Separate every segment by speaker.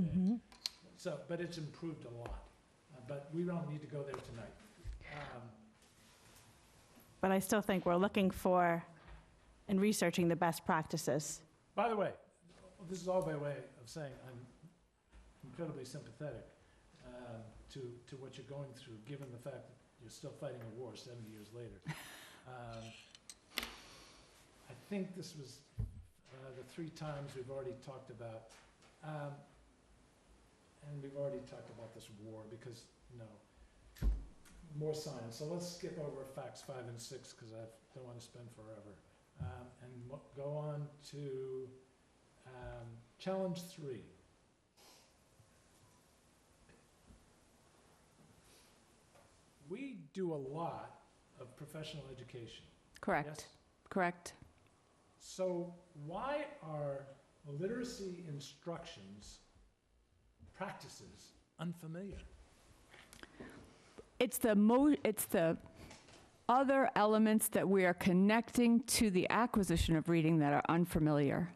Speaker 1: Mm-hmm.
Speaker 2: So, but it's improved a lot, Uh, but we don't need to go there tonight. Um,
Speaker 1: But I still think we're looking for and researching the best practices.
Speaker 2: By the way, this is all by way of saying I'm incredibly sympathetic uh, to, to what you're going through, given the fact that you're still fighting a war 70 years later. Um, I think this was uh, the three times we've already talked about, um, and we've already talked about this war because, you know, more science. So let's skip over facts five and six because I don't want to spend forever um, and mo- go on to um, challenge three. We do a lot of professional education. Yes?
Speaker 3: Correct, correct.
Speaker 2: So why are literacy instructions practices unfamiliar?
Speaker 3: It's the mo, it's the other elements that we are connecting to the acquisition of reading that are unfamiliar.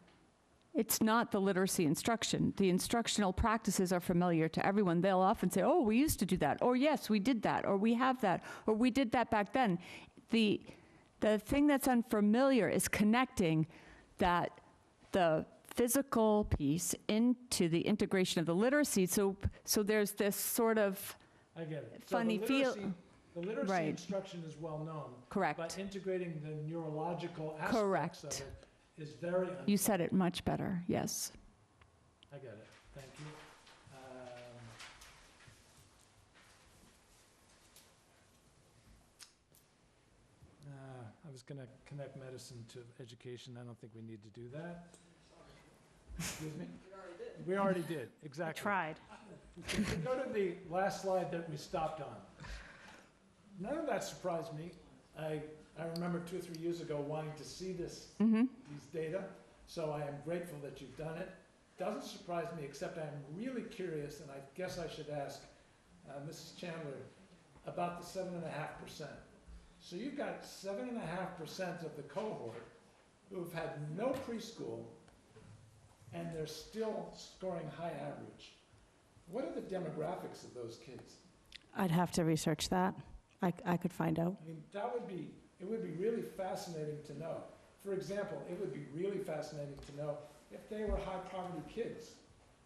Speaker 3: It's not the literacy instruction. The instructional practices are familiar to everyone. They'll often say, "Oh, we used to do that," or "Yes, we did that," or "We have that," or "We did that back then." The the thing that's unfamiliar is connecting that the physical piece into the integration of the literacy. So so there's this sort of
Speaker 2: I get it.
Speaker 3: Funny
Speaker 2: so the
Speaker 3: feel-
Speaker 2: literacy, The literacy
Speaker 3: Right.
Speaker 2: instruction is well known,
Speaker 3: correct.
Speaker 2: but integrating the neurological aspects of
Speaker 3: Correct.
Speaker 2: it is very unfamiliar.
Speaker 3: You said it much better, yes.
Speaker 2: I got it, thank you. Um, uh, I was gonna connect medicine to education, I don't think we need to do that. Excuse me? We already did,
Speaker 1: I
Speaker 2: exactly.
Speaker 1: tried.
Speaker 2: If we Go to the last slide that we stopped on. None of that surprised me. I, I remember two or three years ago wanting to see this
Speaker 3: Mm-hmm.
Speaker 2: these data, so I am grateful that you've done it. Doesn't surprise me, except I'm really curious, and I guess I should ask uh, Mrs. Chandler about the seven and a half percent. So you've got seven and a half percent of the cohort who've had no preschool, and they're still scoring high average. What are the demographics of those kids?
Speaker 1: I'd have to research that. I, I could find out.
Speaker 2: I mean, that would be, it would be really fascinating to know. For example, it would be really fascinating to know if they were high poverty kids.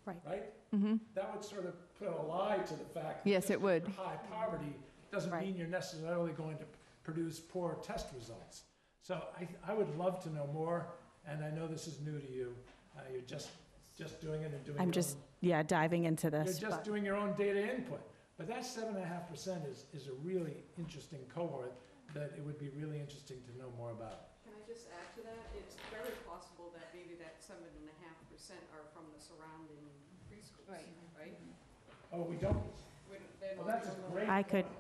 Speaker 1: Right.
Speaker 2: Right?
Speaker 3: Mm-hmm.
Speaker 2: That would sort of put a lie to the fact. that
Speaker 3: Yes,
Speaker 2: just
Speaker 3: it would.
Speaker 2: because you're High poverty doesn't
Speaker 1: Right.
Speaker 2: mean you're necessarily going to produce poor test results. So I, I would love to know more, and I know this is new to you. Uh, you're just, just doing it and doing it.
Speaker 1: I'm just, yeah, diving into
Speaker 2: You're
Speaker 1: this.
Speaker 2: just
Speaker 1: but-
Speaker 2: doing your own data input. But that seven and a half percent is, is a really interesting cohort that it would be really interesting to know more about.
Speaker 4: Can I just add to that? It's very possible that maybe that seven and a half percent are from the surrounding preschools, right?
Speaker 2: Oh, we don't,
Speaker 4: Wouldn't- they're
Speaker 2: well,
Speaker 4: not-
Speaker 2: that's a great.
Speaker 1: I could-
Speaker 2: point.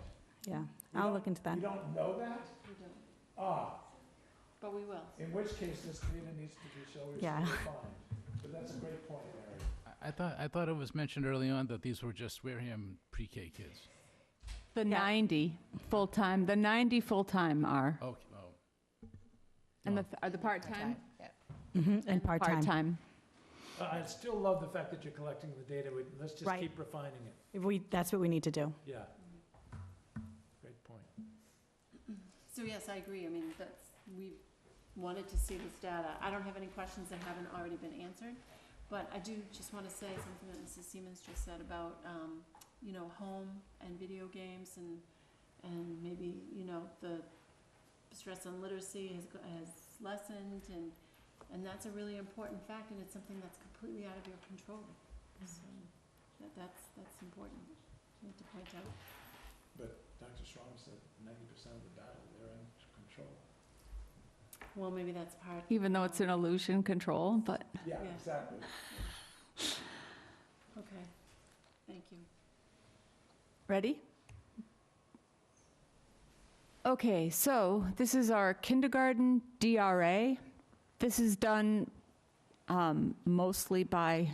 Speaker 1: Yeah,
Speaker 2: We
Speaker 1: I'll
Speaker 2: don't-
Speaker 1: look into that.
Speaker 2: We don't know that?
Speaker 4: We don't,
Speaker 2: Ah,
Speaker 4: But we will.
Speaker 2: in which case this data needs to be, shall we say,
Speaker 1: Yeah.
Speaker 2: refined. But that's a great point, Larry.
Speaker 5: I- I thought, I thought it was mentioned early on that these were just Wareham pre-K kids.
Speaker 3: The
Speaker 1: Yeah.
Speaker 3: 90 full-time, the 90 full-time are.
Speaker 5: Oh, oh.
Speaker 3: And the, are the part-time?
Speaker 1: Mhm, And part-time.
Speaker 3: Part-time.
Speaker 2: But I still love the fact that you're collecting the data. We- Let's just
Speaker 1: Right.
Speaker 2: keep refining it.
Speaker 1: If We, that's what we need to do.
Speaker 2: Yeah. Great point.
Speaker 6: So yes, I agree. I mean, that's, we wanted to see this data. I don't have any questions that haven't already been answered, but I do just want to say something that Mrs. Siemens just said about, um, you know, home and video games and, and maybe, you know, the stress on literacy has, go- has lessened and, and that's a really important fact and it's something that's completely out of your control. So that, that's, that's important to point out.
Speaker 2: But Dr. Strong said ninety percent of the battle, they're in control.
Speaker 6: Well, maybe that's part.
Speaker 3: Even though it's an illusion control, but
Speaker 2: Yeah,
Speaker 6: Yeah.
Speaker 2: exactly.
Speaker 6: Okay, thank you.
Speaker 3: Ready? Okay, so this is our kindergarten DRA. This is done um, mostly by,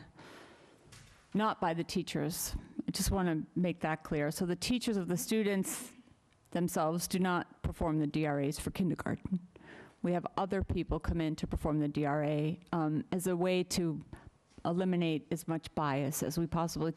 Speaker 3: not by the teachers. I just want to make that clear. So the teachers of the students themselves do not perform the DRAs for kindergarten. We have other people come in to perform the DRA um, as a way to eliminate as much bias as we possibly